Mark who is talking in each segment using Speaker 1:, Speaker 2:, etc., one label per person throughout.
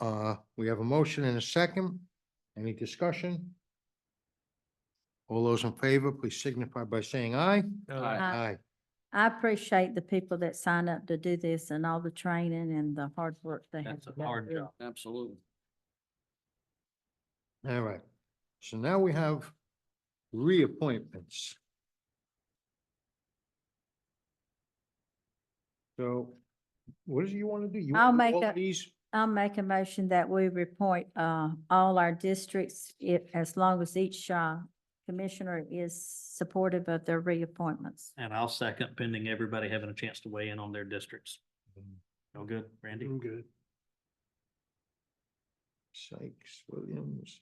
Speaker 1: Uh, we have a motion and a second. Any discussion? All those in favor, please signify by saying aye.
Speaker 2: Oh,
Speaker 3: Aye.
Speaker 2: Aye. I appreciate the people that sign up to do this and all the training and the hard work they have.
Speaker 3: That's a
Speaker 2: to go
Speaker 3: hard
Speaker 2: through.
Speaker 3: job. Absolutely.
Speaker 1: All right. So now we have reappointments. So what do you want to do? You
Speaker 2: I'll
Speaker 1: wanna do
Speaker 2: make
Speaker 1: all
Speaker 2: a-
Speaker 1: These,
Speaker 2: I'll make a motion that we report uh all our districts, if as long as each uh commissioner is supportive of their reappointments.
Speaker 4: And I'll second pending everybody having a chance to weigh in on their districts. No good, Randy?
Speaker 5: I'm good.
Speaker 1: Sykes, Williams.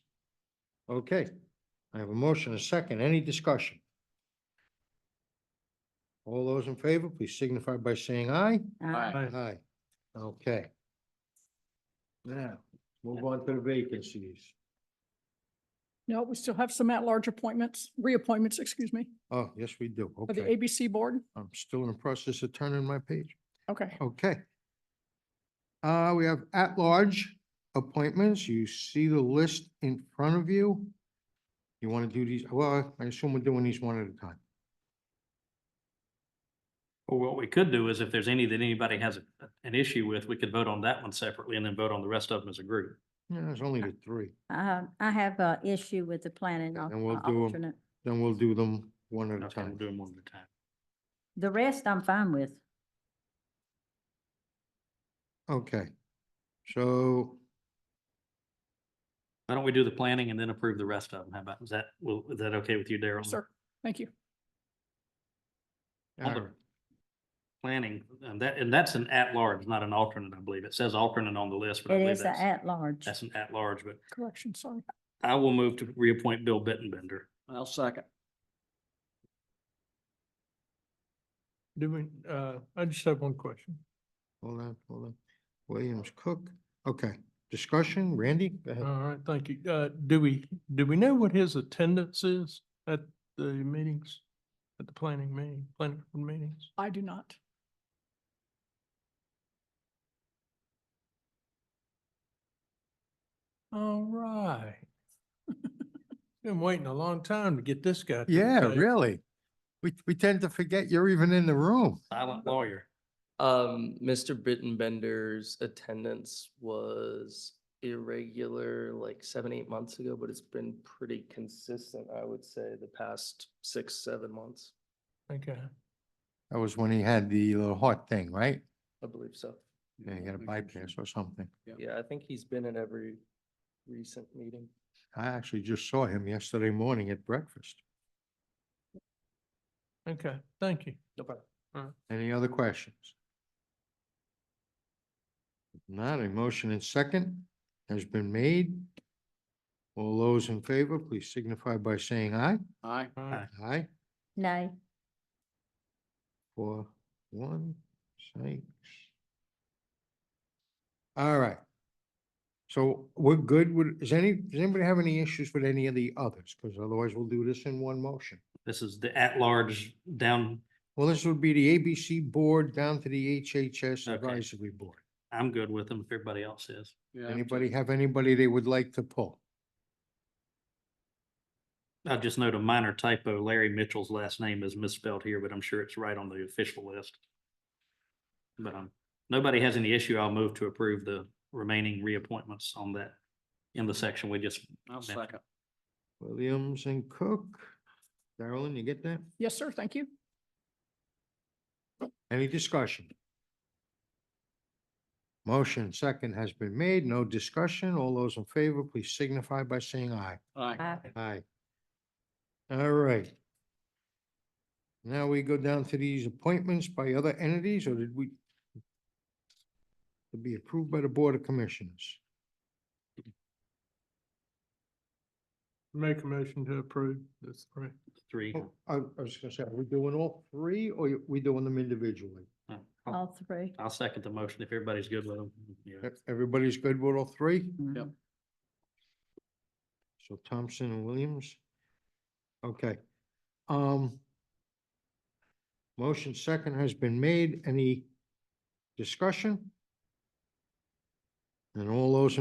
Speaker 1: Okay, I have a motion, and a second, any discussion? All those in favor, please signify by saying aye.
Speaker 2: Uh,
Speaker 3: Aye.
Speaker 1: Aye. Okay. Now, move on to the vacancies.
Speaker 6: No, we still have some at-large appointments, reappointments, excuse me,
Speaker 1: Oh, yes, we do,
Speaker 6: for the
Speaker 1: okay.
Speaker 6: ABC Board.
Speaker 1: I'm still in the process of turning my page,
Speaker 6: Okay.
Speaker 1: okay. Uh, we have at-large appointments, you see the list in front of you. You want to do these, well, I assume we're doing these one at a time.
Speaker 4: Or what we could do is if there's any that anybody has a- an issue with, we could vote on that one separately and then vote on the rest of them as a group.
Speaker 1: Yeah, there's only the three.
Speaker 2: I I have a issue with the planning al-
Speaker 1: And we'll
Speaker 2: uh,
Speaker 1: do 'em.
Speaker 2: alternate.
Speaker 1: Then we'll do them one at a
Speaker 4: Okay, we'll
Speaker 1: time.
Speaker 4: do them one at a time.
Speaker 2: The rest I'm fine with.
Speaker 1: Okay. So,
Speaker 4: Why don't we do the planning and then approve the rest of them? How about, is that, will, is that okay with you, Daryl?
Speaker 6: Sir, thank you.
Speaker 4: On
Speaker 1: all
Speaker 4: the
Speaker 1: right,
Speaker 4: Planning, and that, and that's an at-large, not an alternate, I believe. It says alternate on the list, but I
Speaker 2: It
Speaker 4: believe
Speaker 2: is a
Speaker 4: that's,
Speaker 2: at-large.
Speaker 4: that's an at-large, but
Speaker 6: Correction, sorry.
Speaker 4: I will move to reappoint Bill Bittenbender.
Speaker 3: I'll second.
Speaker 5: Do we, uh, I just have one question.
Speaker 1: hold on, hold on. Williams Cook, okay. Discussion, Randy? Go ahead.
Speaker 5: All right, thank you. Uh, do we, do we know what his attendance is at the meetings? At the planning meeting, planning board meetings?
Speaker 6: I do not.
Speaker 5: All right. Been waiting a long time to get this guy. to
Speaker 1: Yeah,
Speaker 5: say-
Speaker 1: really? We, we tend to forget you're even in the room.
Speaker 4: Silent lawyer.
Speaker 7: Um, Mr. Bittenbender's attendance was irregular like seven, eight months ago, but it's been pretty consistent, I would say, the past six, seven months,
Speaker 5: Okay.
Speaker 1: That was when he had the little heart thing, right?
Speaker 7: I believe so.
Speaker 1: Yeah, he had a bypass or something.
Speaker 7: Yeah, I think he's been at every recent meeting.
Speaker 1: I actually just saw him yesterday morning at breakfast.
Speaker 5: Okay, thank you.
Speaker 7: No problem.
Speaker 1: Any other questions? If Not a motion and second has been made. All those in favor, please signify by saying aye.
Speaker 3: Aye.
Speaker 5: All right.
Speaker 1: Aye.
Speaker 2: Nay.
Speaker 1: Four, one, six. All right. So we're good with, is any, does anybody have any issues with any of the others? Because otherwise we'll do this in one motion.
Speaker 4: This is the at-large down,
Speaker 1: Well, this would be the ABC Board down to the HHS
Speaker 4: Okay.
Speaker 1: Advisory Board.
Speaker 4: I'm good with them if everybody else is.
Speaker 3: Yeah.
Speaker 1: Anybody have anybody they would like to pull?
Speaker 4: I just note a minor typo. Larry Mitchell's last name is misspelled here, but I'm sure it's right on the official list. But um, nobody has any issue. I'll move to approve the remaining reappointments on that in the section we just.
Speaker 3: I'll second.
Speaker 1: Williams and Cook. Darrellin, you get that?
Speaker 6: Yes, sir, thank you.
Speaker 1: Any discussion? Motion second has been made. No discussion. All those in favor, please signify by saying aye.
Speaker 3: Aye.
Speaker 2: I-
Speaker 1: Aye. All right. Now we go down to these appointments by other entities, or did we? To be approved by the Board of Commissioners.
Speaker 5: Make a motion to approve this, right?
Speaker 4: Three.
Speaker 1: Oh, I I was gonna say, are we doing all three, or are we doing them individually?
Speaker 4: Uh,
Speaker 3: Oh.
Speaker 4: I'll-
Speaker 2: All three.
Speaker 4: I'll second the motion if everybody's good with them. Yeah.
Speaker 1: E- Everybody's good with all three?
Speaker 3: Yep.
Speaker 1: So Thompson and Williams? Okay. Um. Motion second has been made. Any discussion? And all those in